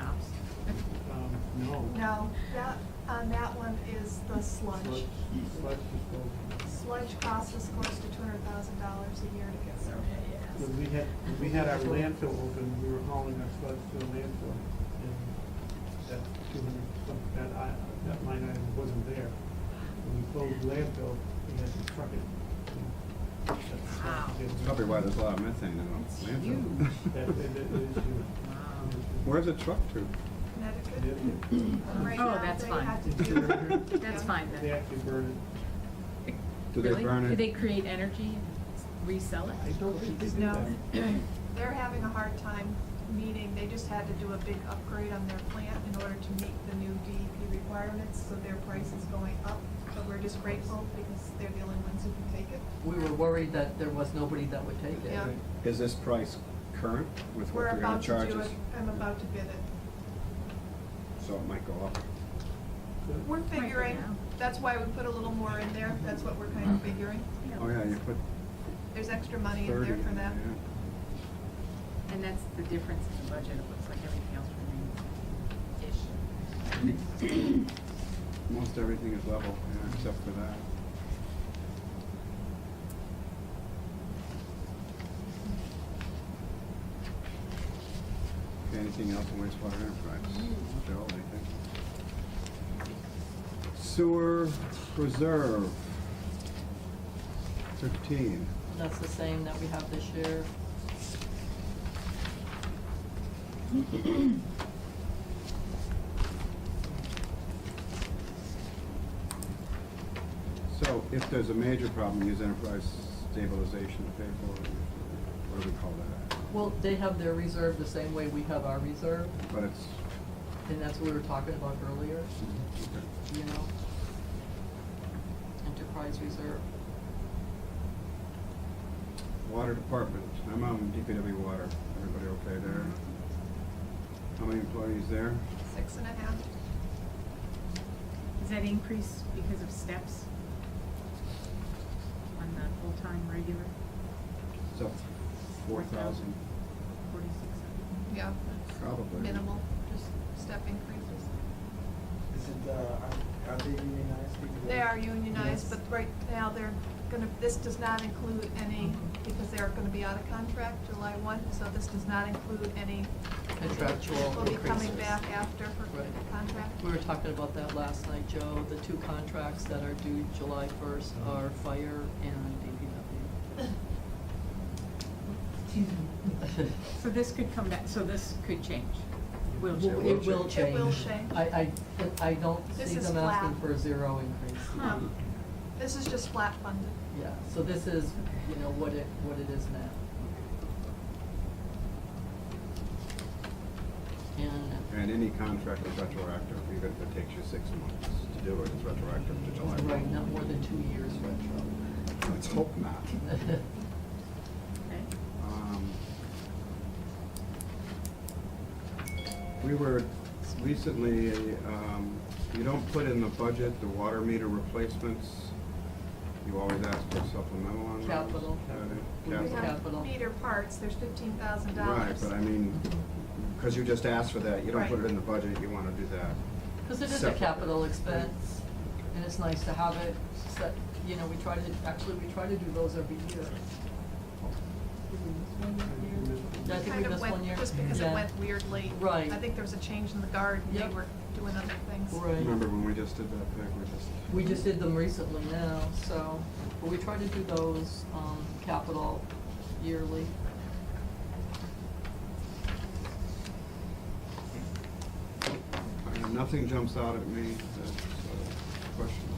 Um, No, that, on that one is the sludge. Sludge cost us close to two hundred thousand dollars a year to get When surveyed. we had, when we had our landfill open, we were hauling our sludge to the landfill, and that two hundred, some- that I, that line item wasn't there. When we closed landfill, we had to truck it. and that sludge didn't- That's Probably why there's a lot of methane in It's our That, landfill. that, that is true. Where's the truck to? Connecticut. It- Right Oh, now, that's they fine. had to do- That's fine They then. actually burn Do they Really? burn Do it? they create energy and resell it. it? I don't think they did No. that. They're having a hard time meeting, they just had to do a big upgrade on their plant in order to meet the new DEP requirements, so their price is going up. But we're just grateful because they're the only ones who can take it. We were worried that there was nobody that would take it. Yeah. Is this price current with We're what they're gonna about to charge do it, us? I'm about to bid it. So it might go up. The- We're figuring, now. that's why we put a little more in there, that's what we're kind of figuring. Oh, yeah, you put There's extra money in thirty. there for that. yeah. And that's the difference in the budget, it looks like everything else remains ish. Most everything is level, yeah, except for that. Okay, Anything else in wastewater enterprise? Joe, anything? Sewer reserve, fifteen. That's the same that we have this year. So if there's a major problem, use enterprise stabilization to pay for it. What do we call that? Well, they have their reserve the same way we have our reserve, But it's, and that's what we were talking about earlier, okay. you know? Enterprise reserve. Water department, I'm on DPW water. Everybody okay there? How many employees there? Six and a half, Is that increase because of steps on the full-time regular, It's up four thousand, forty-six? yeah, probably. minimal, just step increases. Is it, uh, are, are they unionized? people? They are unionized, Yes. but right now, they're gonna, this does not include any, because they're gonna be out of contract July one, so this does not include any. Contractual Will be coming increases. back after for Right. contract. We were talking about that last night, Joe. The two contracts that are due July first are fire and DPW. So this could come back, so this could change, will Well, change. It will It change. will change. I, I, I don't This see is them asking flat. for a zero increase. Huh. This is just flat funded. Yeah, so this is, you know, what it, what it is now. And, And any contract is retroactive, even if it takes you six months to do it, it's retroactive to July one. right, not more than two years retro. Let's hope not. Okay. Um, We were recently, um, you don't put in the budget the water meter replacements. You always ask for supplemental on those. Capital. Uh, We We Capital. have Capital. meter parts, there's fifteen thousand Right, dollars. but I mean, because you just asked for that, you don't put it Right. in the budget, you want to do that. Because it is a Separate. capital expense, and it's nice to have it set, you know, we try to, actually, we try to do those every year. I think we Kind of missed one year. went, just because it Yeah. went weirdly. Right. I think there was a change in the guard, and Yep. they were doing other things. Right. Remember when we just did that thing, we just. We just did them recently now, so, but we try to do those, um, capital yearly. Uh, Nothing jumps out at me that's uh, questionable.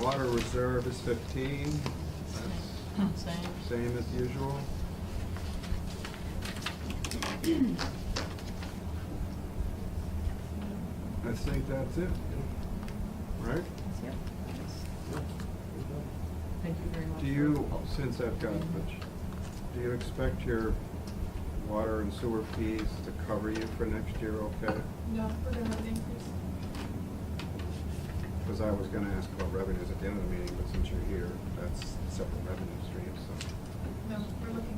Water reserve is fifteen, that's Same. same as usual. I think that's it, right? Thank you very much. Do for- you, oh, since I've got, Butch, do you expect your water and sewer fees to cover you for next year, okay? No, we're gonna have an increase. Because I was gonna ask about revenues at the end of the meeting, but since you're here, that's separate revenue stream, so. No, we're looking